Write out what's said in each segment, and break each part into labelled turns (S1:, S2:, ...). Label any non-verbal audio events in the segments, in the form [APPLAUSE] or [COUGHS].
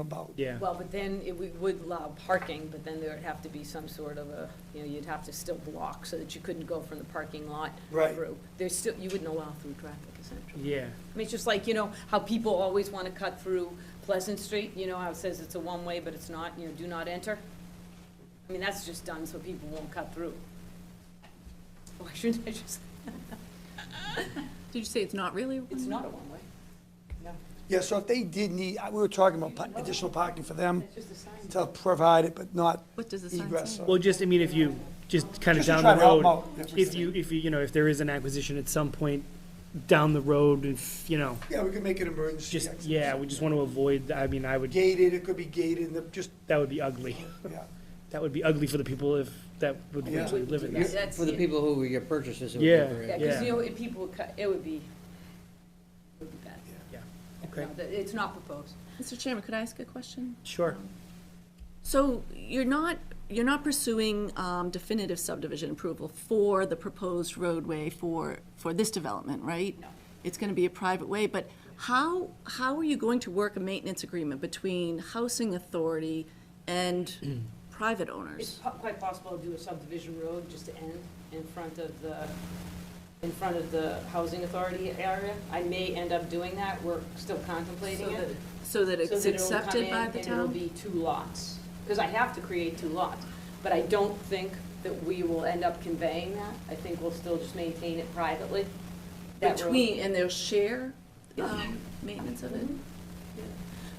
S1: about.
S2: Yeah,
S3: Well, but then it would- would allow parking, but then there would have to be some sort of a, you know, you'd have to still block so that you couldn't go from the parking lot
S1: Right.
S3: through. There's still, you wouldn't allow through traffic essentially.
S2: yeah,
S3: I mean, it's just like, you know, how people always want to cut through Pleasant Street, you know, how it says it's a one-way, but it's not, you know, do not enter? I mean, that's just done so people won't cut through. [LAUGHS] Why shouldn't I just,
S4: Did you say it's not really?
S3: it's not a one-way.
S1: Yeah, so if they did need, I- we were talking about pa- additional parking for them
S3: It's just a sign.
S1: to provide it, but not
S4: What does the sign
S1: egress.
S4: say?
S1: so-
S2: well, just, I mean, if you, just kind of
S1: Just to
S2: down
S1: try
S2: the
S1: to help
S2: road,
S1: out, that's what
S2: if
S1: I'm
S2: you, if you, you know, if there is an acquisition at some point down the road, if, you know,
S1: Yeah, we could make it emergency.
S2: just,
S1: exit.
S2: yeah, we just want to avoid, I mean, I would,
S1: Gated, it could be gated, and the- just,
S2: that would be ugly.
S1: yeah.
S2: That would be ugly for the people if, that would
S1: Yeah.
S2: eventually live in
S3: Yeah,
S2: that.
S3: that's
S5: For the
S3: it.
S5: people who your purchases would be
S2: Yeah.
S5: for.
S3: Yeah, because, you know, if people would cut, it would be, it would be bad.
S2: Okay,
S3: No, that- It's not proposed.
S4: Mr. Chairman, could I ask a question?
S2: sure.
S4: So you're not, you're not pursuing um, definitive subdivision approval for the proposed roadway for, for this development, right?
S3: No.
S4: It's gonna be a private way, but how, how are you going to work a maintenance agreement between housing authority and private
S3: It's
S4: owners?
S3: po- quite possible to do a subdivision road just to end in front of the, in front of the housing authority area. I may end up doing that, we're still contemplating
S4: So that-
S3: it.
S4: So that
S3: So
S4: it's
S3: that it'll come
S4: accepted
S3: in
S4: by the
S3: And it'll
S4: town?
S3: be two lots, because I have to create two lots. But I don't think that we will end up conveying that. I think we'll still just maintain it privately. that road. Mm-hmm.
S4: Between, and they'll share um, maintenance of it?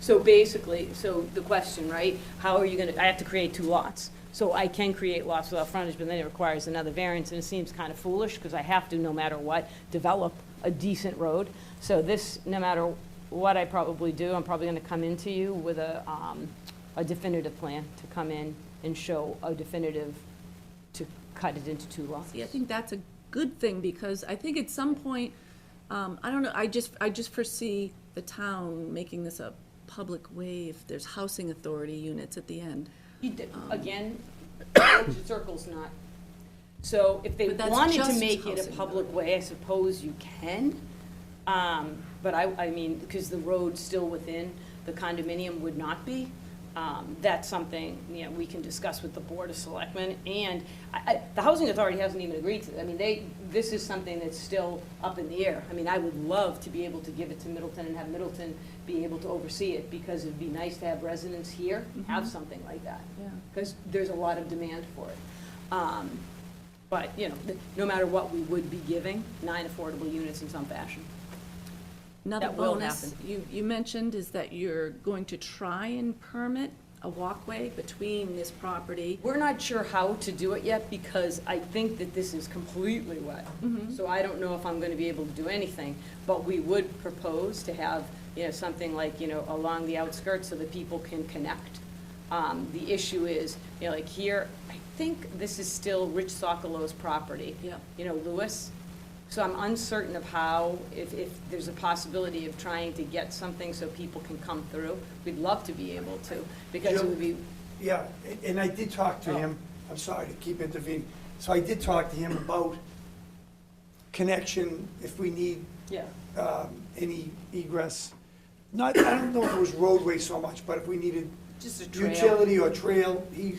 S3: So basically, so the question, right, how are you gonna, I have to create two lots. So I can create lots without frontage, but then it requires another variance, and it seems kind of foolish, because I have to, no matter what, develop a decent road. So this, no matter what I probably do, I'm probably gonna come into you with a, um, a definitive plan to come in and show a definitive, to cut it into two lots.
S4: See, I think that's a good thing, because I think at some point, um, I don't know, I just, I just foresee the town making this a public way if there's housing authority units at the end.
S3: You d-
S4: Um.
S3: Again, village [COUGHS] circle's not, so if they
S4: But that's
S3: wanted to
S4: just
S3: make it a
S4: housing, though.
S3: public way, I suppose you can. Um, But I, I mean, because the road's still within, the condominium would not be. Um, That's something, you know, we can discuss with the Board of Selectmen, and I, I, the Housing Authority hasn't even agreed to, I mean, they, this is something that's still up in the air. I mean, I would love to be able to give it to Middleton and have Middleton be able to oversee it, because it'd be nice to have residents here have something like that
S4: Yeah.
S3: because there's a lot of demand for it. Um, But, you know, th- no matter what, we would be giving nine affordable units in some fashion.
S4: Another
S3: That will
S4: bonus you, you mentioned is that you're going to try and permit a walkway between this property.
S3: We're not sure how to do it yet because I think that this is completely wet. So I don't know if I'm going to be able to do anything, but we would propose to have, you know, something like, you know, along the outskirts so that people can connect. Um, The issue is, you know, like here, I think this is still Rich Sokolow's property.
S4: Yep.
S3: you know, Lewis. So I'm uncertain of how, if, if there's a possibility of trying to get something so people can come through. We'd love to be able to, because it would be,
S1: Yeah, a- and I did talk
S2: Oh.
S1: to him, I'm sorry to keep intervening, so I did talk to him about connection, if we need
S3: yeah,
S1: um, any egress, not, I don't know if it was roadway so much, but if we needed
S3: just a trail.
S1: utility or trail, he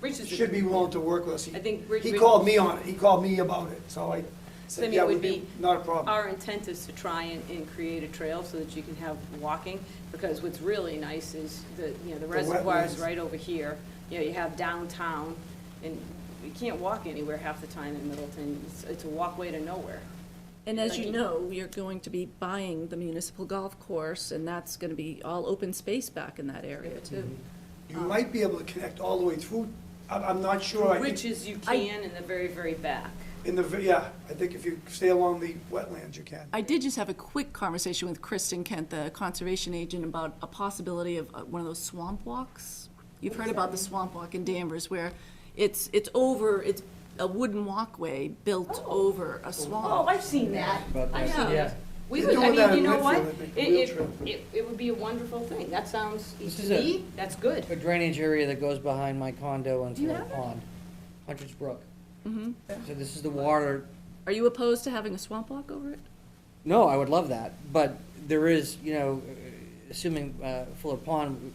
S3: Rich is a-
S1: should be willing to work with us. He-
S3: I think Rich-
S1: He called me on it, he called me about it, so I
S3: So,
S1: said,
S3: I mean,
S1: yeah,
S3: it
S1: would
S3: would
S1: be,
S3: be,
S1: not a problem.
S3: our intent is to try and, and create a trail so that you can have walking, because what's really nice is the, you know, the reservoir is
S1: wetlands.
S3: right over here. You know, you have downtown, and you can't walk anywhere half the time in Middleton. It's, it's a walkway to nowhere.
S4: And as you
S3: Like-
S4: know, you're going to be buying the municipal golf course, and that's gonna be all open space back in that area,
S3: Mm-hmm.
S4: too.
S1: You
S3: uh,
S1: might be able to connect all the way through, I'm, I'm not sure, I
S3: Which
S1: think,
S3: is you
S4: I-
S3: can in the very, very back.
S1: in the, v- yeah, I think if you stay along the wetlands, you can.
S4: I did just have a quick conversation with Kristen Kent, the conservation agent, about a possibility of uh, one of those swamp walks. You've heard about the swamp walk in Danvers where it's, it's over, it's a wooden walkway built over a
S3: Oh,
S4: swamp.
S3: I've seen that.
S5: About
S3: I
S5: that.
S3: know.
S5: Yeah.
S3: We
S1: They're
S3: would, I
S1: doing that
S3: mean, you
S1: in
S3: know what?
S1: Whitfield, I think,
S3: It,
S1: wheel
S3: it-
S1: trail.
S3: it, it would be a wonderful thing. That sounds,
S5: This
S3: to
S5: is a-
S3: me, that's good.
S5: A drainage area that goes behind my condo into
S3: you
S5: the
S3: have Mm-hmm. that?
S5: pond, Hunter's Brook. So this is the water,
S4: Are you opposed to having a swamp walk over it?
S5: no, I would love that, but there is, you know, assuming uh, Fuller Pond